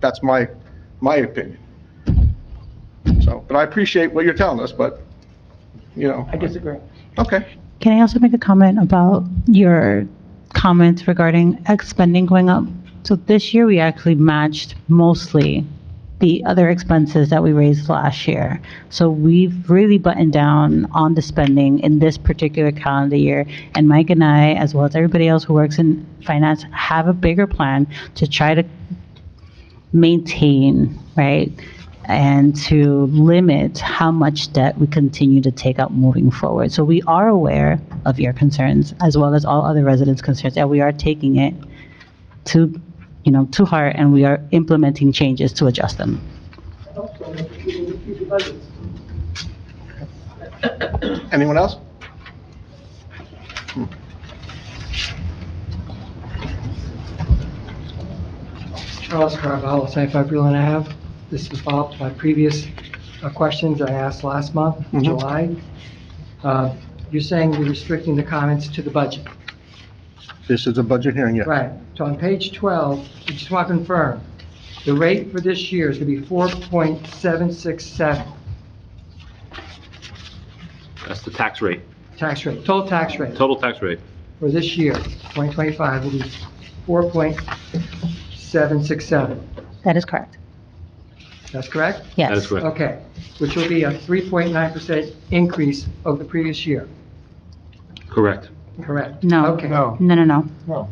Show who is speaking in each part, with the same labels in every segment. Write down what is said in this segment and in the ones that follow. Speaker 1: That's my, my opinion. So, but I appreciate what you're telling us, but, you know,
Speaker 2: I disagree.
Speaker 1: okay.
Speaker 3: Can I also make a comment about your comments regarding ex spending going up? So this year, we actually matched mostly the other expenses that we raised last year. So we've really buttoned down on the spending in this particular calendar year. And Mike and I, as well as everybody else who works in finance, have a bigger plan to try to maintain, right? And to limit how much debt we continue to take out moving forward. So we are aware of your concerns as well as all other residents' concerns, and we are taking it to, you know, to heart, and we are implementing changes to adjust them.
Speaker 1: Anyone else? Hmm.
Speaker 2: Charles Carvalho, 75 Breland Ave. This is Bob. My previous uh, questions I asked last month,
Speaker 1: Mhm.
Speaker 2: July. Uh, You're saying you're restricting the comments to the budget.
Speaker 1: This is a budget hearing, yeah.
Speaker 2: Right. So on page 12, I just want to confirm, the rate for this year is going to be 4.767
Speaker 4: That's the tax rate,
Speaker 2: tax rate, total tax rate
Speaker 4: total tax rate.
Speaker 2: for this year, 2025, will be 4.767.
Speaker 3: That is correct.
Speaker 2: That's correct?
Speaker 3: Yes.
Speaker 4: That is correct.
Speaker 2: Okay, which will be a 3.9% increase over the previous year,
Speaker 4: Correct.
Speaker 2: correct?
Speaker 3: No.
Speaker 2: Okay.
Speaker 1: No.
Speaker 3: No, no, no.
Speaker 1: No.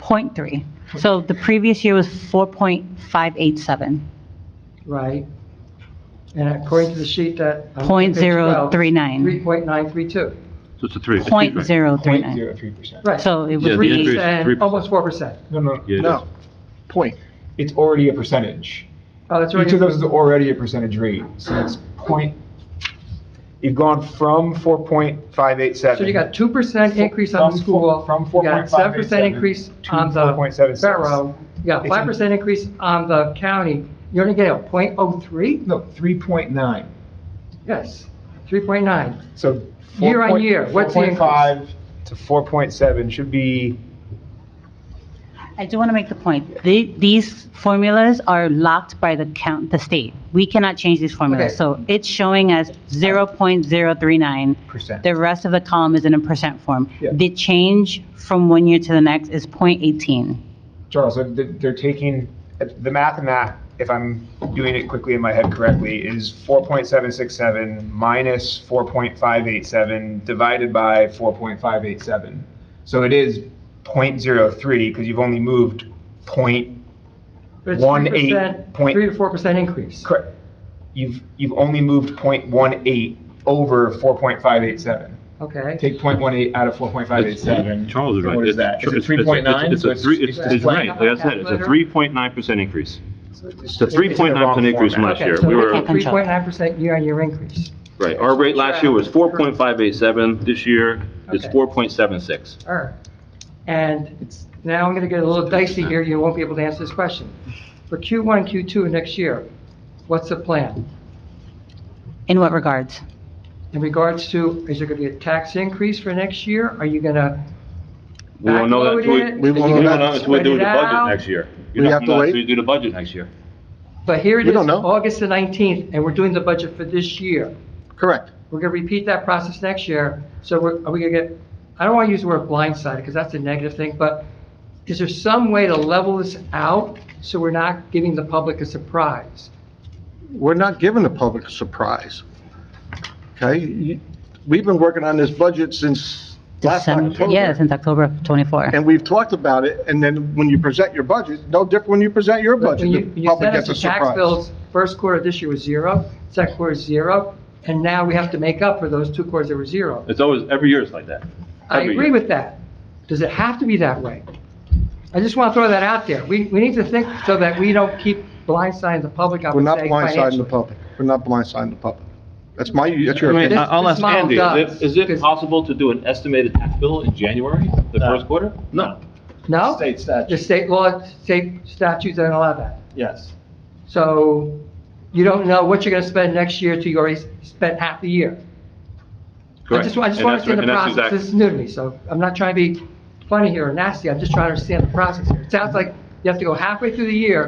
Speaker 3: Point three. So the previous year was 4.587,
Speaker 2: Right. And according to the sheet that. on
Speaker 3: Point
Speaker 2: page
Speaker 3: zero
Speaker 2: 12,
Speaker 3: three nine.
Speaker 2: 3.932.
Speaker 4: So it's a three. it's a
Speaker 3: point
Speaker 4: three.
Speaker 3: zero three
Speaker 5: Point
Speaker 3: nine.
Speaker 5: zero three percent.
Speaker 2: Right.
Speaker 3: So it
Speaker 4: Yeah,
Speaker 3: would
Speaker 4: the
Speaker 3: be.
Speaker 4: increase- three-
Speaker 2: 3%, almost 4%.
Speaker 5: No, no,
Speaker 4: Yeah, it
Speaker 1: No, point.
Speaker 5: it's already a percentage.
Speaker 2: Oh, that's
Speaker 5: Each of those
Speaker 2: already,
Speaker 5: is already a percentage rate, so it's point, you've gone from four point five eight seven.
Speaker 2: so you got 2% increase on the
Speaker 5: From
Speaker 2: school.
Speaker 5: four- from
Speaker 2: you got 7%
Speaker 5: 4.587
Speaker 2: increase
Speaker 5: to
Speaker 2: on the
Speaker 5: 4.76.
Speaker 2: borough. You got 5% increase on the county. You only get a .03?
Speaker 5: No, three point nine,
Speaker 2: Yes, 3.9.
Speaker 5: so.
Speaker 2: Year on year, what's the increase?
Speaker 5: Four point five to four point seven should be,
Speaker 3: I do want to make the point, The- these formulas are locked by the count, the state. We cannot change these
Speaker 2: Okay.
Speaker 3: formulas. So it's showing as 0.039.
Speaker 5: Percent.
Speaker 3: The rest of the column is in a percent form.
Speaker 5: Yeah.
Speaker 3: The change from one year to the next is .18.
Speaker 5: Charles, they're, they're taking, the math in that, if I'm doing it quickly in my head correctly, is four point seven six seven minus four point five eight seven divided by four point five eight seven. So it is point zero three, because you've only moved point,
Speaker 2: But it's
Speaker 5: One
Speaker 2: 3%,
Speaker 5: eight point-
Speaker 2: 3 to 4% increase.
Speaker 5: correct, you've, you've only moved point one eight over four point five eight seven.
Speaker 2: Okay.
Speaker 5: Take point one eight out of four point five eight seven.
Speaker 4: Charles is right.
Speaker 5: What is
Speaker 4: It's-
Speaker 5: that? Is it
Speaker 4: it's- it's-
Speaker 5: three point nine?
Speaker 4: It's a three, it's, it's right, like I said, it's a three point nine percent increase. It's a three point nine percent increase from last year. We
Speaker 3: can't
Speaker 4: were,
Speaker 3: control it.
Speaker 2: 3.9% year-on-year increase.
Speaker 4: right, our rate last year was four point five eight seven, this year it's
Speaker 2: Okay.
Speaker 4: four point seven six.
Speaker 2: All right. And now I'm going to get a little dicey here, you won't be able to answer this question. For Q1 and Q2 next year, what's the plan?
Speaker 3: In what regards?
Speaker 2: In regards to, is there going to be a tax increase for next year? Are you going to
Speaker 4: We won't know that until
Speaker 2: backload
Speaker 4: we,
Speaker 1: We
Speaker 2: it?
Speaker 1: won't
Speaker 4: we
Speaker 1: know
Speaker 4: don't
Speaker 1: that.
Speaker 4: know until we
Speaker 2: Spread
Speaker 4: do
Speaker 2: it
Speaker 4: the budget
Speaker 2: out?
Speaker 4: next year.
Speaker 1: We
Speaker 4: You're not
Speaker 1: have to
Speaker 4: gonna know
Speaker 1: wait?
Speaker 4: until you Do the budget next year.
Speaker 2: But here it
Speaker 1: We
Speaker 2: is,
Speaker 1: don't know.
Speaker 2: August the 19th, and we're doing the budget for this year.
Speaker 1: Correct.
Speaker 2: We're going to repeat that process next year, so we're, are we going to get, I don't want to use the word blindsided, because that's a negative thing, but is there some way to level this out so we're not giving the public a surprise?
Speaker 1: We're not giving the public a surprise. Okay? You- We've been working on this budget since last
Speaker 3: December-
Speaker 1: October.
Speaker 3: Yeah, since October of 24.
Speaker 1: And we've talked about it, and then when you present your budget, no different when you present your
Speaker 2: But
Speaker 1: budget.
Speaker 2: When you,
Speaker 1: the
Speaker 2: when you
Speaker 1: public
Speaker 2: sent us
Speaker 1: gets
Speaker 2: the
Speaker 1: a
Speaker 2: tax
Speaker 1: surprise.
Speaker 2: bills, first quarter this year was zero, second quarter is zero, and now we have to make up for those two quarters that were zero.
Speaker 4: It's always, every year it's like that.
Speaker 2: I
Speaker 4: Every
Speaker 2: agree
Speaker 4: year.
Speaker 2: with that. Does it have to be that way? I just want to throw that out there. We, we need to think so that we don't keep blindsiding the public, I
Speaker 1: We're
Speaker 2: would
Speaker 1: not
Speaker 2: say,
Speaker 1: blindsiding the
Speaker 2: financially.
Speaker 1: public. We're not blindsiding the public. That's my, that's your
Speaker 4: I mean,
Speaker 1: opinion.
Speaker 4: I- I'll
Speaker 2: this
Speaker 4: ask
Speaker 2: model
Speaker 4: Andy,
Speaker 2: does,
Speaker 4: is it- is it
Speaker 2: because-
Speaker 4: possible to do an estimated tax bill in January, the
Speaker 6: No.
Speaker 4: first quarter? No.
Speaker 2: No?
Speaker 6: State
Speaker 2: The
Speaker 6: statute,
Speaker 2: state law, state statutes don't allow that.
Speaker 6: yes.
Speaker 2: So you don't know what you're going to spend next year till you already spent half the year. I
Speaker 4: Correct.
Speaker 2: just, I just
Speaker 4: And
Speaker 2: want
Speaker 4: that's
Speaker 2: to understand
Speaker 4: right,
Speaker 2: the
Speaker 4: and that's
Speaker 2: process.
Speaker 4: exact-
Speaker 2: This is new to me, so I'm not trying to be funny here or nasty. I'm just trying to understand the process here. It sounds like you have to go halfway through the year